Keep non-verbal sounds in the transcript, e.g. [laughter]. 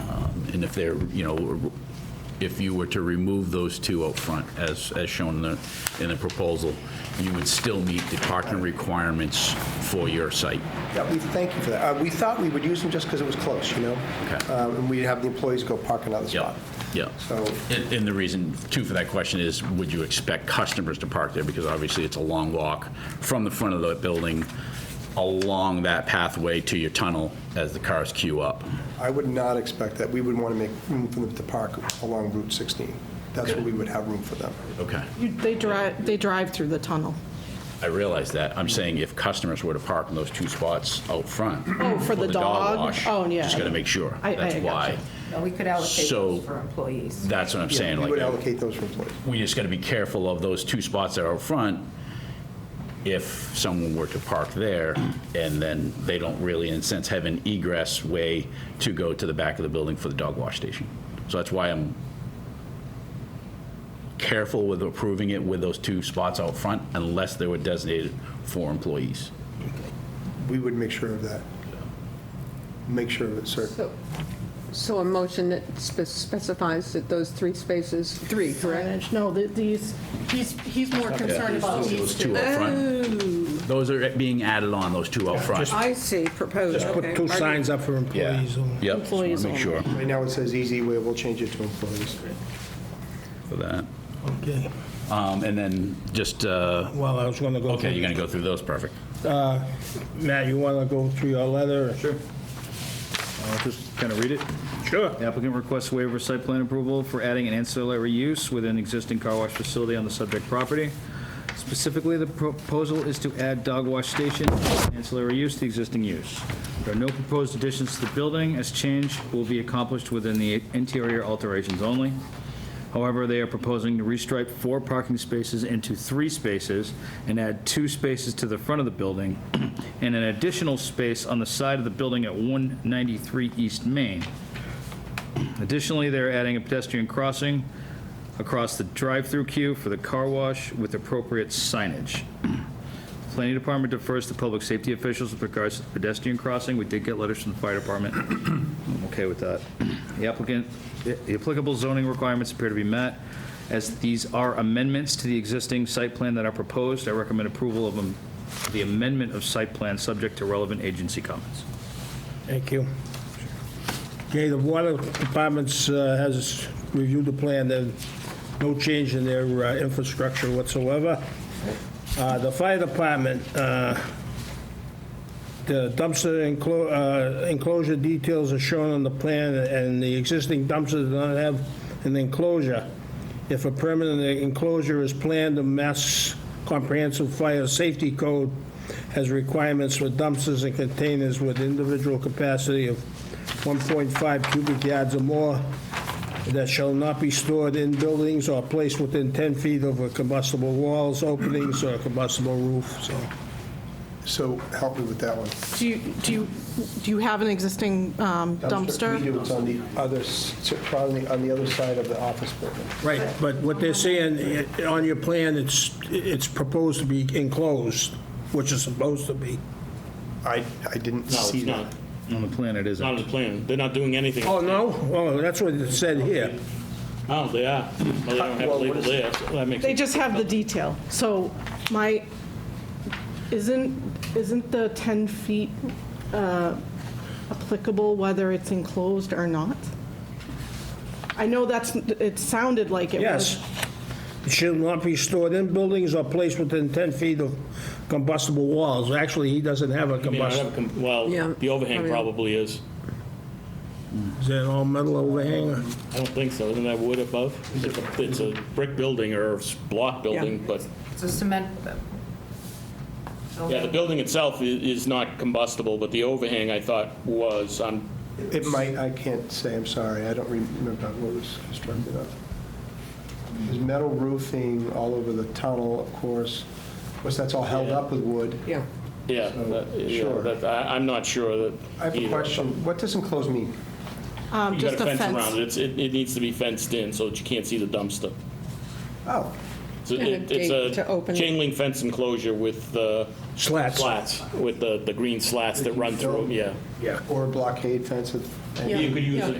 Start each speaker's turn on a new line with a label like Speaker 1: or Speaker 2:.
Speaker 1: Um, and if they're, you know, if you were to remove those two out front, as, as shown in the, in the proposal, you would still meet the parking requirements for your site.
Speaker 2: Yeah, we thank you for that. Uh, We thought we would use them just because it was close, you know?
Speaker 1: Okay.
Speaker 2: Um, And we'd have the employees go park another
Speaker 1: Yeah,
Speaker 2: spot.
Speaker 1: yeah.
Speaker 2: So-
Speaker 1: And and the reason, too, for that question is, would you expect customers to park there? Because obviously, it's a long walk from the front of the building along that pathway to your tunnel as the cars queue up.
Speaker 2: I would not expect that. We would want to make room for them to park along Route 16. That's where we would have room for them.
Speaker 1: Okay.
Speaker 3: You- They drive, they drive through the tunnel.
Speaker 1: I realize that. I'm saying if customers were to park in those two spots out front.
Speaker 3: Oh, for the dog?
Speaker 1: wash,
Speaker 3: Oh, yeah.
Speaker 1: Just got to make sure.
Speaker 3: I- I
Speaker 1: That's
Speaker 3: gotcha.
Speaker 1: why.
Speaker 4: No, we could allocate
Speaker 1: So-
Speaker 4: those for employees.
Speaker 1: That's what I'm saying.
Speaker 2: We would
Speaker 1: Like,
Speaker 2: allocate those for employees.
Speaker 1: we just got to be careful of those two spots that are out front. If someone were to park there and then they don't really, in a sense, have an egress way to go to the back of the building for the dog wash station. So that's why I'm careful with approving it with those two spots out front unlss they were designated for employees.
Speaker 2: We would make sure of that. Make sure of it, sir.
Speaker 5: So- So a motion that spe- specifies that those three spaces, three, correct?
Speaker 3: Signage. No, th- these, he's, he's more concerned about
Speaker 1: Those
Speaker 3: these
Speaker 1: two
Speaker 3: two.
Speaker 1: up front. Those are being added on, those two up front.
Speaker 5: I see, proposed,
Speaker 6: Just
Speaker 5: okay.
Speaker 6: put two
Speaker 5: Are you-
Speaker 6: signs up for
Speaker 1: Yeah.
Speaker 6: employees only.
Speaker 1: Yep, just want
Speaker 3: Employees
Speaker 1: to make
Speaker 3: only.
Speaker 1: sure
Speaker 2: Right now, it says easy way, we'll change it to employees.
Speaker 1: for that.
Speaker 6: Okay.
Speaker 1: Um, And then just, uh,
Speaker 6: Well, I was going to go.
Speaker 1: okay,
Speaker 6: through-
Speaker 1: you're going to go through those, perfect.
Speaker 6: Matt, you want to go through your letter?
Speaker 7: Sure. I'll just kind of read it.
Speaker 6: Sure.
Speaker 7: The applicant requests waiver of site plan approval for adding an ancillary use within an existing car wash facility on the subject property. Specifically, the proposal is to add dog wash station ancillary use to the existing use. There are no proposed additions to the building, as change will be accomplished within the interior alterations only. However, they are proposing to restripe four parking spaces into three spaces and add two spaces to the front of the building [clears throat] and an additional space on the side of the building at 193 East Main. Additionally, they're adding a pedestrian crossing across the drive-through queue for the car wash with appropriate signage. Planning Department defers to public safety officials with regards to the pedestrian crossing. We did get letters from the fire department. I'm okay with that. The applicant, the applicable zoning requirements appear to be met. As these are amendments to the existing site plan that are proposed, I recommend approval of them, the amendment of site plan, subject to relevant agency comments.
Speaker 6: Thank you. Okay, the water department's, uh, has reviewed the plan, there's no change in their uh, infrastructure whatsoever. Uh, The fire department, uh, the dumpster enclo- uh, enclosure details are shown on the plan, and the existing dumpster does not have an enclosure. If a permanent enclosure is planned, the Mass Comprehensive Fire Safety Code has requirements for dumpsters and containers with individual capacity of 1.5 cubic yards or more that shall not be stored in buildings or placed within 10 feet of a combustible walls, openings, or combustible roof, so.
Speaker 2: So help me with that one.
Speaker 3: Do you, do you, do you have an existing um, dumpster?
Speaker 2: We do, it's on the other, s- it's probably on the other side of the office building.
Speaker 6: Right, but what they're saying, eh, on your plan, it's, it's proposed to be enclosed, which is supposed to be.
Speaker 2: I, I didn't
Speaker 8: No,
Speaker 2: see
Speaker 8: it's
Speaker 2: that.
Speaker 8: not.
Speaker 7: On the plan, it
Speaker 8: It's not
Speaker 7: isn't.
Speaker 8: in the plan. They're not doing anything.
Speaker 6: Oh, no? Oh, that's what it said here.
Speaker 8: No, Oh, they are. No, they don't have a
Speaker 2: Well, what
Speaker 8: label
Speaker 2: is-
Speaker 8: there, so that makes
Speaker 3: They
Speaker 8: sense.
Speaker 3: just have the detail. So my, isn't, isn't the 10 feet uh, applicable whether it's enclosed or not? I know that's, it sounded like it was.
Speaker 6: Yes. It shall not be stored in buildings or placed within 10 feet of combustible walls. Actually, he doesn't have a
Speaker 8: I mean, I have
Speaker 6: combustible.
Speaker 8: a com- Well,
Speaker 5: Yeah,
Speaker 8: the overhang
Speaker 5: probably.
Speaker 8: probably is.
Speaker 6: Is that all metal overhang? or-
Speaker 8: I don't think so. Isn't that wood above? It's a- It's a brick building or a s- block building, but,
Speaker 4: It's a cement.
Speaker 8: yeah, the building itself i- is not combustible, but the overhang, I thought, was um, on,
Speaker 2: It might, I can't say, I'm sorry, I don't remember what was constructed of. There's metal roofing all over the tunnel, of course, of course, that's all held up with wood.
Speaker 5: Yeah.
Speaker 8: yeah. that- yeah,
Speaker 2: Sure.
Speaker 8: that- I- I'm not sure that.
Speaker 2: I have a
Speaker 8: either.
Speaker 2: question, what does enclosed mean?
Speaker 3: um,
Speaker 8: You got
Speaker 3: just
Speaker 8: a fence around it. It's- It it needs to be fenced in so that you can't see the dumpster.
Speaker 2: Oh,
Speaker 8: So
Speaker 5: And a
Speaker 8: it- It's
Speaker 5: gate to
Speaker 8: a
Speaker 5: open it.
Speaker 8: chain link fence enclosure with uh,
Speaker 6: Slats.
Speaker 8: slats, with the the green slats that run through, 'em, yeah.
Speaker 2: yeah, or a blockade fence, if-
Speaker 8: You could use
Speaker 3: Yeah.
Speaker 8: a